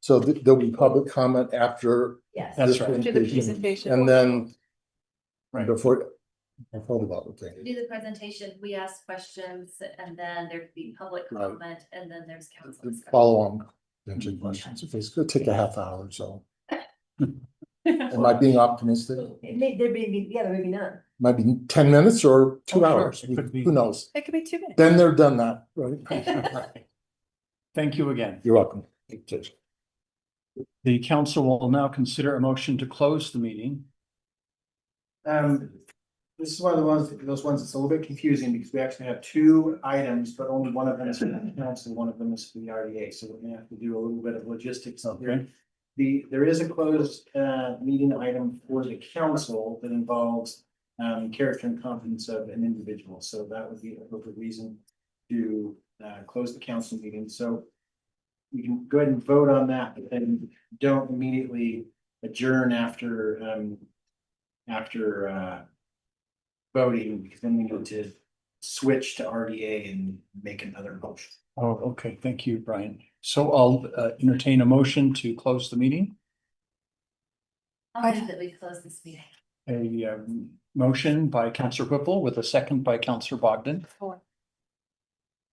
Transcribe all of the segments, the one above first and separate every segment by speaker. Speaker 1: So th- there'll be public comment after
Speaker 2: Yes.
Speaker 3: That's
Speaker 1: this
Speaker 3: right.
Speaker 2: After the
Speaker 1: presentation
Speaker 2: presentation.
Speaker 1: and then
Speaker 3: Right.
Speaker 1: before, I thought about the thing.
Speaker 4: Do the presentation, we ask questions, and then there could be public
Speaker 1: Right.
Speaker 4: comment, and then there's council.
Speaker 1: the
Speaker 4: discussion.
Speaker 1: Follow on, potential questions. If it's gonna take a half hour or so. Am I being optimistic?
Speaker 2: It may, there may be, yeah, there may be none.
Speaker 1: Might be ten minutes or
Speaker 3: Oh,
Speaker 1: two
Speaker 3: sure,
Speaker 1: hours.
Speaker 3: it
Speaker 1: We-
Speaker 3: could be.
Speaker 1: Who knows?
Speaker 2: It could be two minutes.
Speaker 1: Then they're done that, right?
Speaker 3: Thank you again.
Speaker 1: You're welcome.
Speaker 3: The council will now consider a motion to close the meeting.
Speaker 5: Um, this is one of the ones, those ones that's a little bit confusing because we actually have two items, but only one of them is for the council, and one of them is for the RDA, so we're gonna have to do a little bit of logistics up here.
Speaker 3: Okay.
Speaker 5: The, there is a closed, uh, meeting item for the council that involves, um, character and confidence of an individual, so that would be a appropriate reason to, uh, close the council meeting, so we can go ahead and vote on that, but then don't immediately adjourn after, um, after uh. Voting, because then we need to switch to RDA and make another motion.
Speaker 3: Oh, okay, thank you, Brian. So I'll uh, entertain a motion to close the meeting.
Speaker 4: I'll move that we close this meeting.
Speaker 3: A um, motion by Counselor Whipple with a second by Counselor Bogdan.
Speaker 2: Four.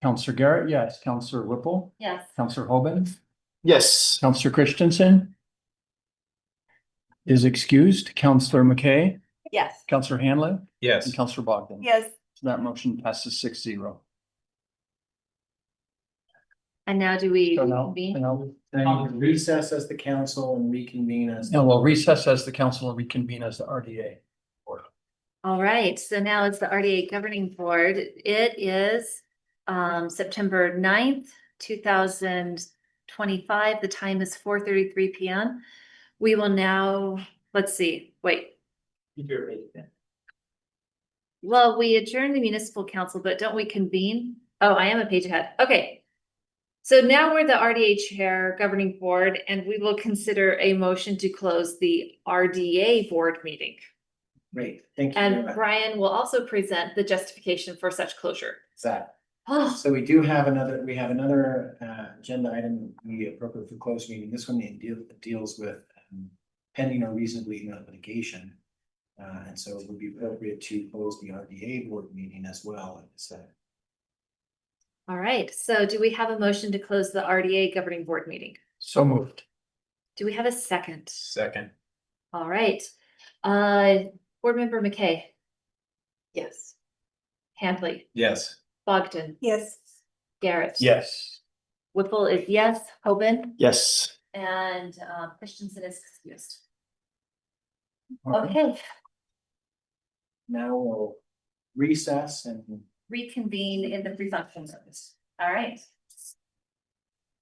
Speaker 3: Counselor Garrett, yes. Counselor Whipple,
Speaker 4: Yes.
Speaker 3: Counselor Hoban,
Speaker 5: Yes.
Speaker 3: Counselor Christensen is excused. Counselor McKay,
Speaker 2: Yes.
Speaker 3: Counselor Hanlon,
Speaker 6: Yes.
Speaker 3: and Counselor Bogdan.
Speaker 2: Yes.
Speaker 3: So That motion passes six zero.
Speaker 4: And now do we?
Speaker 3: So now,
Speaker 4: convene?
Speaker 3: now,
Speaker 5: Then Um, recess as the council and reconvene as.
Speaker 3: now we'll recess as the council and reconvene as the RDA.
Speaker 4: All right, so now it's the RDA governing board. It is um September 9th, two thousand twenty-five. The time is four thirty-three P M. We will now, let's see, wait. Well, we adjourn the municipal council, but don't we convene? Oh, I am a page ahead. Okay. So now we're the RDA Chair Governing Board, and we will consider a motion to close the RDA Board meeting.
Speaker 5: Great, thank you. very
Speaker 4: And
Speaker 5: much.
Speaker 4: Brian will also present the justification for such closure.
Speaker 5: Zach.
Speaker 4: Oh,
Speaker 5: So we do have another, we have another uh agenda item we appropriate for closed meeting. This one it deal- deals with um, pending or reasonably imminent litigation. Uh, and so it would be appropriate to close the RDA board meeting as well, so.
Speaker 4: all right. So do we have a motion to close the RDA governing board meeting?
Speaker 3: So moved.
Speaker 4: Do we have a second?
Speaker 6: Second.
Speaker 4: All right. Uh, board member McKay,
Speaker 2: Yes.
Speaker 4: Handley,
Speaker 6: Yes.
Speaker 4: Bogdan,
Speaker 2: Yes.
Speaker 4: Garrett.
Speaker 3: Yes.
Speaker 4: Whipple is yes, Hoban,
Speaker 3: Yes.
Speaker 4: and uh, Christensen is excused.
Speaker 3: Okay.
Speaker 4: Okay,
Speaker 5: now we'll recess and
Speaker 4: reconvene in the pre-function service. All right.